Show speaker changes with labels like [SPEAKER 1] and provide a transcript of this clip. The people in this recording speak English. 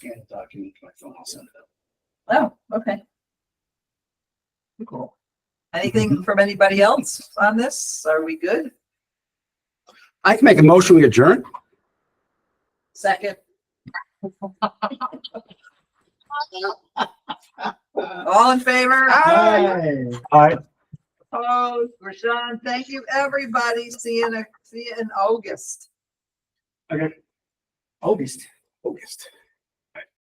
[SPEAKER 1] and the document to my phone, I'll send it out.
[SPEAKER 2] Oh, okay.
[SPEAKER 3] Cool.
[SPEAKER 2] Anything from anybody else on this? Are we good?
[SPEAKER 1] I can make a motion, we adjourn.
[SPEAKER 2] Second? All in favor?
[SPEAKER 1] Aye.
[SPEAKER 2] Opposed? Rashawn, thank you, everybody. See you in, see you in August.
[SPEAKER 1] August. August.